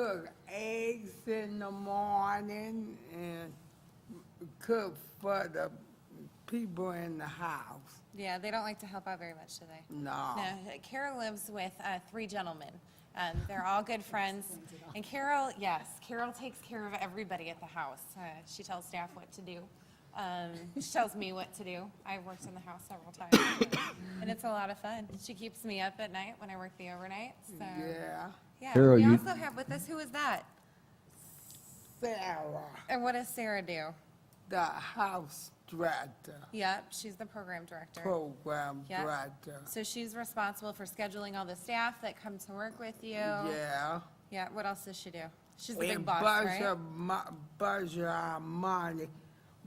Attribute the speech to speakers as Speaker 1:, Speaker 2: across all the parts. Speaker 1: cook eggs in the morning and cook for the people in the house.
Speaker 2: Yeah, they don't like to help out very much, do they?
Speaker 1: No.
Speaker 2: No, Carol lives with uh, three gentlemen. Um, They're all good friends. And Carol, yes, Carol takes care of everybody at the house. Uh, She tells staff what to do. Um, She tells me what to do. I've worked in the house several times, and it's a lot of fun. She keeps me up at night when I work the overnight, so.
Speaker 1: Yeah.
Speaker 2: Yeah,
Speaker 3: Carol,
Speaker 2: we
Speaker 3: you-
Speaker 2: also have with us, who is that?
Speaker 1: Sarah,
Speaker 2: And what does Sarah do?
Speaker 1: the house director,
Speaker 2: Yep, she's the program director.
Speaker 1: program
Speaker 2: Yep.
Speaker 1: director.
Speaker 2: So she's responsible for scheduling all the staff that come to work with you.
Speaker 1: Yeah.
Speaker 2: Yeah, what else does she do? She's the big
Speaker 1: And
Speaker 2: boss,
Speaker 1: bunch
Speaker 2: right?
Speaker 1: of mo- bunch of our money,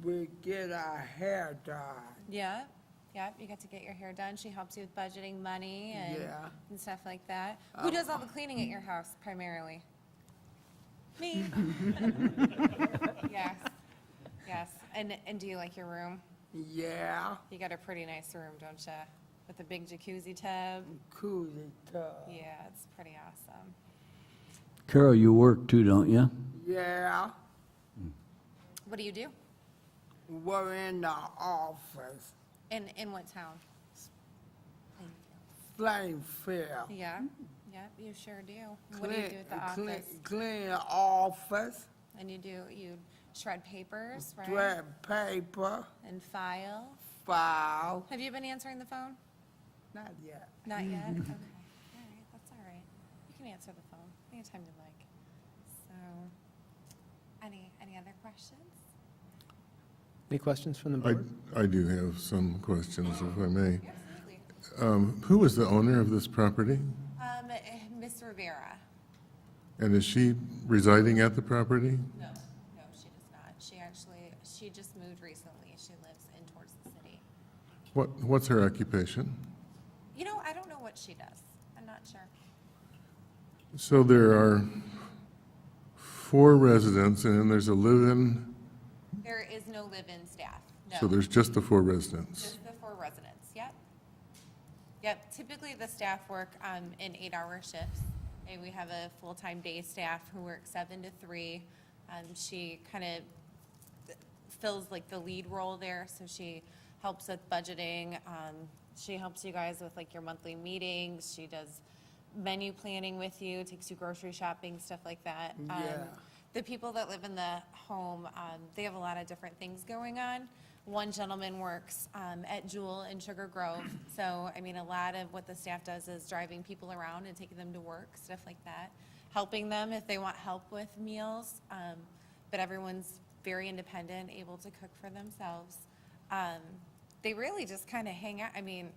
Speaker 1: we get our hair done.
Speaker 2: Yeah, yeah, you get to get your hair done. She helps you with budgeting money and,
Speaker 1: Yeah.
Speaker 2: and stuff like that. Who does all the cleaning at your house primarily? Me. Yes, yes. And, and do you like your room?
Speaker 1: Yeah,
Speaker 2: You got a pretty nice room, don't you? With a big jacuzzi tub?
Speaker 1: coolie tub.
Speaker 2: Yeah, it's pretty awesome.
Speaker 3: Carol, you work too, don't you?
Speaker 1: Yeah,
Speaker 2: What do you do?
Speaker 1: we're in the office,
Speaker 2: In, in what town?
Speaker 1: Plainfield.
Speaker 2: Yeah, yeah, you sure do. What do you do at the
Speaker 1: Clean-
Speaker 2: office?
Speaker 1: Clean, clean the office,
Speaker 2: And you do, you shred papers, right?
Speaker 1: shred paper,
Speaker 2: And file.
Speaker 1: file,
Speaker 2: Have you been answering the phone?
Speaker 1: not yet.
Speaker 2: Not yet? Okay. All right, that's all right. You can answer the phone anytime you like. So, any, any other questions?
Speaker 4: Any questions from the
Speaker 5: I,
Speaker 4: board?
Speaker 5: I do have some questions, if I may.
Speaker 2: Absolutely.
Speaker 5: Um, Who is the owner of this property?
Speaker 2: Um, eh, Ms. Rivera?
Speaker 5: And is she residing at the property?
Speaker 2: No, no, she does not. She actually, she just moved recently. She lives in towards the city.
Speaker 5: What, what's her occupation?
Speaker 2: You know, I don't know what she does. I'm not sure.
Speaker 5: So there are four residents, and then there's a live-in,
Speaker 2: There is no live-in staff, no.
Speaker 5: so there's just the four residents.
Speaker 2: Just the four residents, yep. Yep, typically the staff work um, in eight-hour shifts, and we have a full-time day staff who works seven to three. Um, She kind of fills like the lead role there, so she helps with budgeting. um, She helps you guys with like your monthly meetings, she does menu planning with you, takes you grocery shopping, stuff like that. Um,
Speaker 1: Yeah.
Speaker 2: the people that live in the home, um, they have a lot of different things going on. One gentleman works um, at Jewel in Sugar Grove, so, I mean, a lot of what the staff does is driving people around and taking them to work, stuff like that, helping them if they want help with meals, um, but everyone's very independent, able to cook for themselves. Um, They really just kind of hang out, I mean,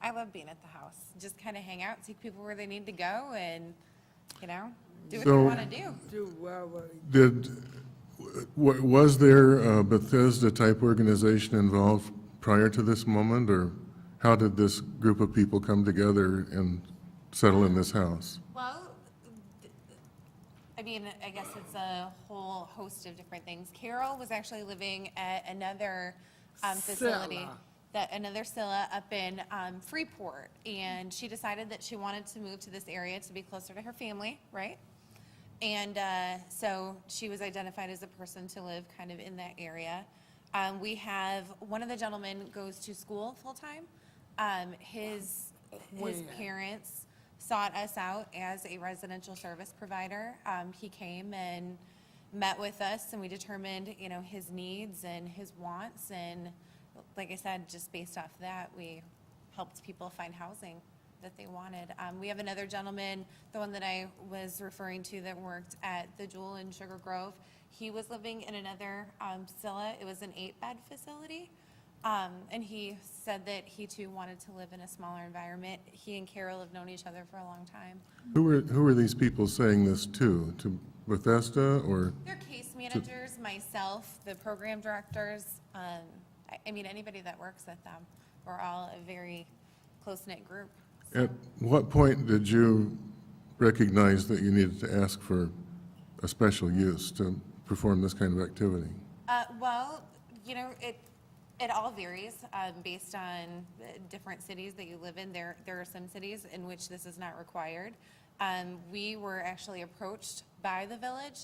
Speaker 2: I love being at the house, just kind of hang out, take people where they need to go, and, you know, do what they
Speaker 5: So-
Speaker 2: want to do.
Speaker 1: Do well, with-
Speaker 5: Did, wa- was there a Bethesda-type organization involved prior to this moment, or how did this group of people come together and settle in this house?
Speaker 2: Well, th- I mean, I guess it's a whole host of different things. Carol was actually living at another um, facility,
Speaker 1: Scylla.
Speaker 2: that, another Scylla up in um, Freeport. And she decided that she wanted to move to this area to be closer to her family, right? And uh, so she was identified as a person to live kind of in that area. Um, We have, one of the gentlemen goes to school full-time. Um, His, his
Speaker 1: Where?
Speaker 2: parents sought us out as a residential service provider. Um, He came and met with us, and we determined, you know, his needs and his wants. And like I said, just based off that, we helped people find housing that they wanted. Um, we have another gentleman, the one that I was referring to that worked at the Jewel in Sugar Grove. He was living in another, um, Scylla. It was an eight-bed facility. Um, and he said that he too wanted to live in a smaller environment. He and Carol have known each other for a long time.
Speaker 5: Who were, who were these people saying this to? To Bethesda or,
Speaker 2: Their case managers, myself, the program directors, um, I, I mean, anybody that works at them. We're all a very close-knit group.
Speaker 5: at what point did you recognize that you needed to ask for a special use to perform this kind of activity?
Speaker 2: Uh, well, you know, it, it all varies, um, based on uh, different cities that you live in. There, there are some cities in which this is not required. Um, we were actually approached by the village